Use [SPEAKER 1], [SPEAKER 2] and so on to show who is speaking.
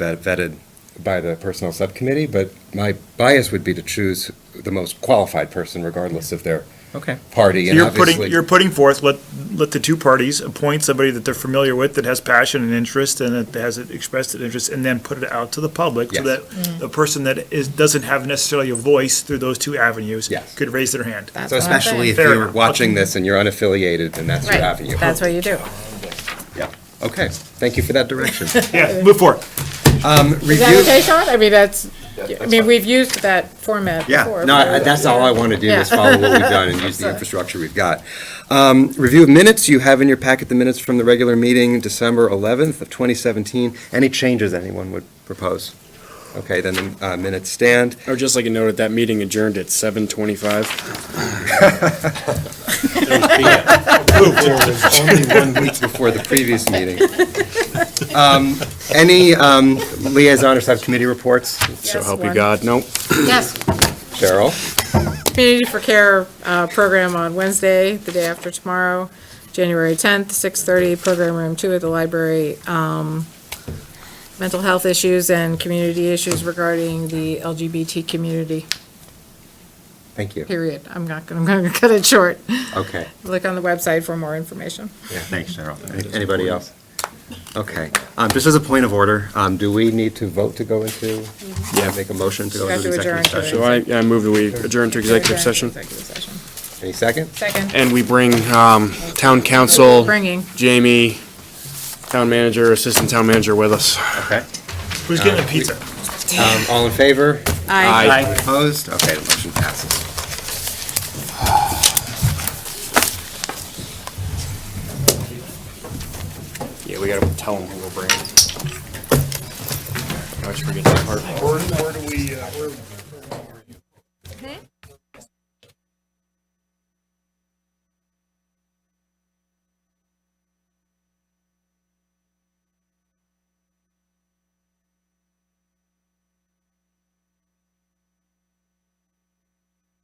[SPEAKER 1] vet- vetted by the personnel subcommittee, but my bias would be to choose the most qualified person regardless of their
[SPEAKER 2] Okay.
[SPEAKER 1] party.
[SPEAKER 3] So
[SPEAKER 1] and
[SPEAKER 3] You're putting,
[SPEAKER 1] obviously-
[SPEAKER 3] you're putting forth, let, let the two parties appoint somebody that they're familiar with, that has passion and interest, and that has expressed an interest, and then put it out to the public, so
[SPEAKER 1] Yes.
[SPEAKER 3] that the person that is, doesn't have necessarily a voice through those two avenues
[SPEAKER 1] Yes.
[SPEAKER 3] could raise their hand.
[SPEAKER 1] So
[SPEAKER 4] what I'm
[SPEAKER 1] especially if
[SPEAKER 3] Fair
[SPEAKER 1] you're
[SPEAKER 3] enough.
[SPEAKER 1] watching this and you're unaffiliated, and that's your avenue.
[SPEAKER 4] Right, that's what you do.
[SPEAKER 1] Yeah, okay, thank you for that direction.
[SPEAKER 3] Yeah, move forward.
[SPEAKER 4] Is that okay, Sean? I mean, that's, I mean, we've used that format before.
[SPEAKER 1] Yeah, no, I-
[SPEAKER 4] but-
[SPEAKER 1] that's all I want to do is
[SPEAKER 4] Yeah.
[SPEAKER 1] follow what we've done and use the infrastructure we've got. Um, Review of minutes, you have in your packet the minutes from the regular meeting, December 11th of 2017. Any changes anyone would propose? Okay, then the uh, minutes stand.
[SPEAKER 5] I would just like to note that that meeting adjourned at seven twenty-five.
[SPEAKER 1] One week before the previous meeting. Um, Any um, liaison or subcommittee reports?
[SPEAKER 5] So
[SPEAKER 4] Yes,
[SPEAKER 5] help you
[SPEAKER 4] one.
[SPEAKER 5] God. Nope.
[SPEAKER 4] Yes,
[SPEAKER 1] Cheryl?
[SPEAKER 4] Community for Care uh, program on Wednesday, the day after tomorrow, January 10th, 6:30, Program Room 2 at the library. Um, Mental health issues and community issues regarding the LGBT community,
[SPEAKER 1] Thank you.
[SPEAKER 4] period. I'm not going, I'm going to cut it short.
[SPEAKER 1] Okay.
[SPEAKER 4] Look on the website for more information.
[SPEAKER 1] Yeah, thanks, Cheryl. Anybody else? Okay, um, just as a point of order, um, do we need to vote to go into?
[SPEAKER 5] Mm-hmm.
[SPEAKER 1] Yeah. Make a motion to go
[SPEAKER 4] You have
[SPEAKER 1] into
[SPEAKER 4] to
[SPEAKER 1] executive
[SPEAKER 4] adjourn to
[SPEAKER 1] session?
[SPEAKER 5] So I, I move that we adjourn to executive session
[SPEAKER 4] Executive session.
[SPEAKER 1] Any second?
[SPEAKER 4] Second.
[SPEAKER 5] and we bring, um, town council,
[SPEAKER 4] Bringing.
[SPEAKER 5] Jamie, town manager, assistant town manager with us.
[SPEAKER 1] Okay.
[SPEAKER 3] Who's getting a pizza?
[SPEAKER 1] Um, all in favor?
[SPEAKER 4] Aye.
[SPEAKER 1] Opposed? Okay, the motion passes.
[SPEAKER 5] Yeah, we gotta tell them who we're bringing. I always forget that part.
[SPEAKER 3] Where, where do we, uh, where,